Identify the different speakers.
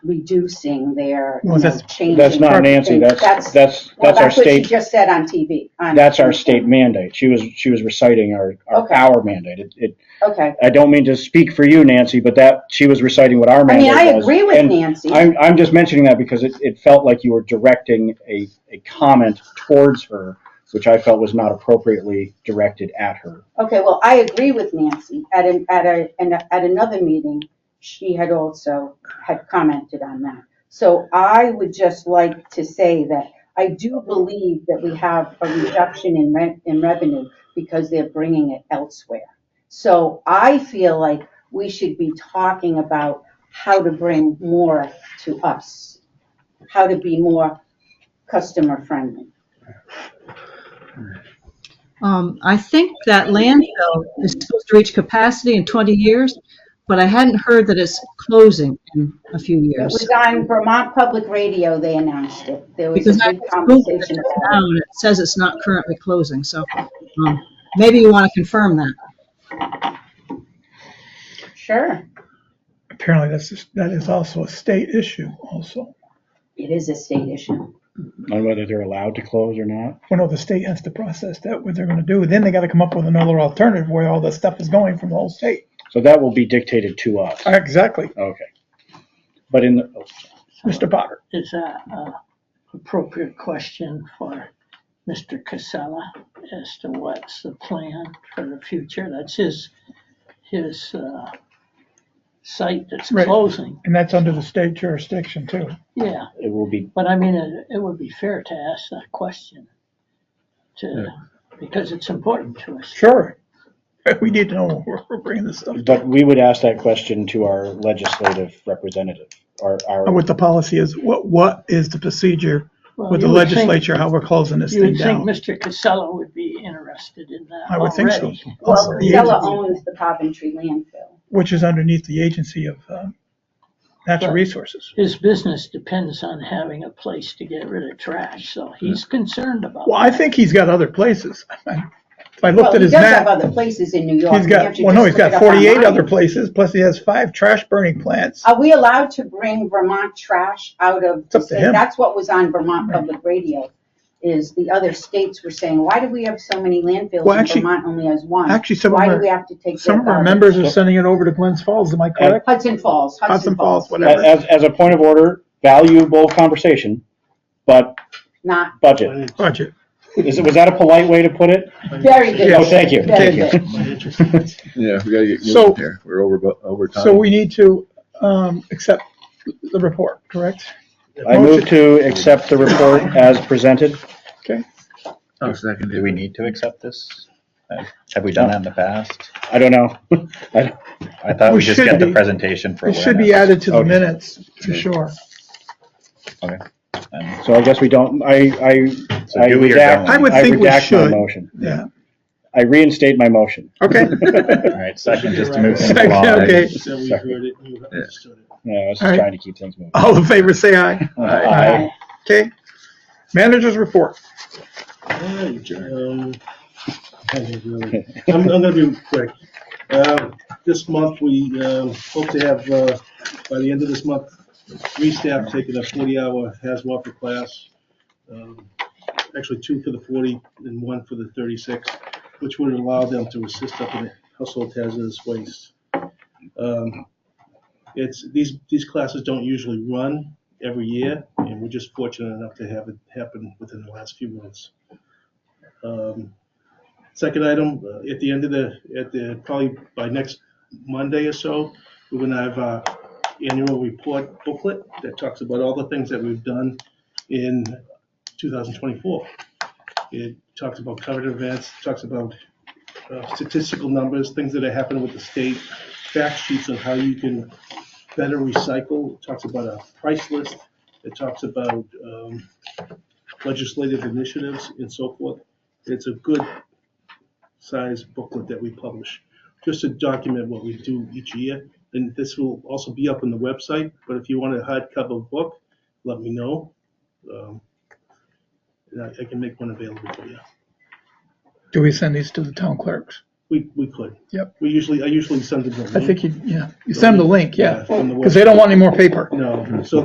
Speaker 1: reducing their, you
Speaker 2: Well,
Speaker 1: know,
Speaker 2: that's-
Speaker 1: changing.
Speaker 3: That's not Nancy,
Speaker 1: everything.
Speaker 3: that's, that's,
Speaker 1: well,
Speaker 3: that's our
Speaker 1: what she
Speaker 3: state,
Speaker 1: just said on TV. on-
Speaker 3: that's our state mandate. She was, she was reciting our, our,
Speaker 1: Okay.
Speaker 3: our mandate. It, it,
Speaker 1: Okay,
Speaker 3: I don't mean to speak for you, Nancy, but that, she was reciting what our
Speaker 1: I
Speaker 3: mandate
Speaker 1: mean,
Speaker 3: was.
Speaker 1: I agree with
Speaker 3: And
Speaker 1: Nancy.
Speaker 3: I'm, I'm just mentioning that because it, it felt like you were directing a, a comment towards her, which I felt was not appropriately directed at her.
Speaker 1: Okay, well, I agree with Nancy. At an, at a, and at another meeting, she had also had commented on that. So I would just like to say that I do believe that we have a reduction in rent, in revenue because they're bringing it elsewhere. So I feel like we should be talking about how to bring more to us, how to be more customer friendly.
Speaker 4: Um, I think that landfill is supposed to reach capacity in 20 years, but I hadn't heard that it's closing in a few
Speaker 1: It
Speaker 4: years.
Speaker 1: was on Vermont Public Radio, they announced it. There was a
Speaker 4: Because I
Speaker 1: big
Speaker 4: just Googled it
Speaker 1: conversation
Speaker 4: just
Speaker 1: about it.
Speaker 4: now, and it says it's not currently closing, so, um, maybe you want to confirm that.
Speaker 1: Sure,
Speaker 2: Apparently, that's, that is also a state issue also.
Speaker 1: it is a state issue.
Speaker 3: On whether they're allowed to close or not.
Speaker 2: Well, no, the state has to process that, what they're gonna do, then they gotta come up with another alternative where all this stuff is going from the whole state.
Speaker 3: So that will be dictated to us.
Speaker 2: Ah, Exactly,
Speaker 3: Okay. But in the, oh,
Speaker 2: Mr. Potter.
Speaker 5: is a a appropriate question for Mr. Casella as to what's the plan for the future. That's his, his uh, site that's
Speaker 2: Right.
Speaker 5: closing.
Speaker 2: And that's under the state jurisdiction too.
Speaker 5: Yeah,
Speaker 3: it will be,
Speaker 5: but I mean, it it would be fair to ask that question to, because it's important to us.
Speaker 2: Sure. We need to know where we're bringing this stuff,
Speaker 3: but we would ask that question to our legislative representative, our, our.
Speaker 2: what the policy is, what, what is the procedure
Speaker 5: Well,
Speaker 2: with the
Speaker 5: you would think-
Speaker 2: legislature, how we're closing this
Speaker 5: You
Speaker 2: thing
Speaker 5: would think
Speaker 2: down?
Speaker 5: Mr. Casella would be interested in that
Speaker 2: I would think so.
Speaker 5: already.
Speaker 1: Well,
Speaker 2: Also,
Speaker 1: Casella owns the Coventry landfill.
Speaker 2: Which is underneath the agency of, um, natural
Speaker 5: Right.
Speaker 2: resources.
Speaker 5: His business depends on having a place to get rid of trash, so he's concerned about
Speaker 2: Well, I think he's got other places. If I
Speaker 1: Well,
Speaker 2: looked
Speaker 1: he
Speaker 2: at
Speaker 1: does
Speaker 2: his
Speaker 1: have
Speaker 2: map,
Speaker 1: other places in New York.
Speaker 2: he's
Speaker 1: You have
Speaker 2: got,
Speaker 1: to
Speaker 2: well, no,
Speaker 1: just
Speaker 2: he's
Speaker 1: look it
Speaker 2: got
Speaker 1: up
Speaker 2: forty-eight
Speaker 1: online.
Speaker 2: other places, plus he has five trash burning plants.
Speaker 1: Are we allowed to bring Vermont trash out of?
Speaker 2: It's up to
Speaker 1: so
Speaker 2: him.
Speaker 1: That's what was on Vermont Public Radio, is the other states were saying, why do we have so many landfills
Speaker 2: Well,
Speaker 1: and
Speaker 2: actually-
Speaker 1: Vermont only has one?
Speaker 2: actually, some of
Speaker 1: Why
Speaker 2: our-
Speaker 1: do we have to take?
Speaker 2: Some
Speaker 1: their
Speaker 2: of our
Speaker 1: garbage?
Speaker 2: members are sending it over to Glens Falls, am I correct?
Speaker 1: Hudson Falls,
Speaker 2: Hudson
Speaker 1: Hudson
Speaker 2: Falls,
Speaker 1: Falls.
Speaker 2: whatever.
Speaker 1: yes.
Speaker 3: As, as a point of order, valuable conversation, but
Speaker 1: Not,
Speaker 3: budget.
Speaker 2: Budget.
Speaker 3: Is it, was that a polite way to put it?
Speaker 1: very good.
Speaker 3: No, thank you.
Speaker 1: Very good.
Speaker 6: Yeah, we gotta get
Speaker 2: So-
Speaker 6: moving here. We're over, bu- over time.
Speaker 2: So we need to, um, accept the report, correct?
Speaker 3: I move to accept the report as presented.
Speaker 2: Okay,
Speaker 6: I'll second
Speaker 7: Do
Speaker 6: it.
Speaker 7: we need to accept this? Uh, Have we done that in the past?
Speaker 3: I don't know. I-
Speaker 7: I thought
Speaker 2: We
Speaker 7: we just
Speaker 2: should
Speaker 7: get the
Speaker 2: be.
Speaker 7: presentation for
Speaker 2: it
Speaker 7: awareness.
Speaker 2: should be added to the
Speaker 3: Okay.
Speaker 2: minutes, for sure.
Speaker 7: Okay. And
Speaker 3: So I guess we don't, I, I,
Speaker 7: So
Speaker 3: I
Speaker 7: do we or
Speaker 3: redact,
Speaker 7: don't?
Speaker 3: I
Speaker 2: I would think we
Speaker 3: redact my
Speaker 2: should.
Speaker 3: motion.
Speaker 2: Yeah,
Speaker 3: I reinstate my motion.
Speaker 2: okay.
Speaker 7: All right, second, just to move things
Speaker 2: Second,
Speaker 7: along.
Speaker 2: okay.
Speaker 8: So we heard it, you understood it.
Speaker 3: Yeah, I was
Speaker 2: All
Speaker 3: just
Speaker 2: right.
Speaker 3: trying to keep things moving.
Speaker 2: All in favor, say aye.
Speaker 3: Aye.
Speaker 2: Okay. Managers report.
Speaker 8: Alright, um, I don't really- I'm, I'm gonna be quick. Um, This month, we um, hope to have, uh, by the end of this month, three staff taking a forty-hour hazmat for class. Um, Actually, two for the forty and one for the thirty-six, which would allow them to assist up in household hazardous waste. Um, It's, these, these classes don't usually run every year, and we're just fortunate enough to have it happen within the last few months. Um, Second item, uh, at the end of the, at the, probably by next Monday or so, we're gonna have our annual report booklet that talks about all the things that we've done in 2024. It talks about covered events, talks about uh, statistical numbers, things that are happening with the state, fact sheets on how you can better recycle, It talks about a price list, it talks about um, legislative initiatives and so forth. It's a good size booklet that we publish, just to document what we do each year. And this will also be up on the website, but if you want a hardcover book, let me know. Um, and I I can make one available for you.
Speaker 2: Do we send these to the town clerks?
Speaker 8: We, we could.
Speaker 2: Yep.
Speaker 8: We usually, I usually send it to them.
Speaker 2: I think you, yeah, Oh, you send them the link, yeah,
Speaker 8: From the
Speaker 2: because they don't want any more paper.
Speaker 8: No, so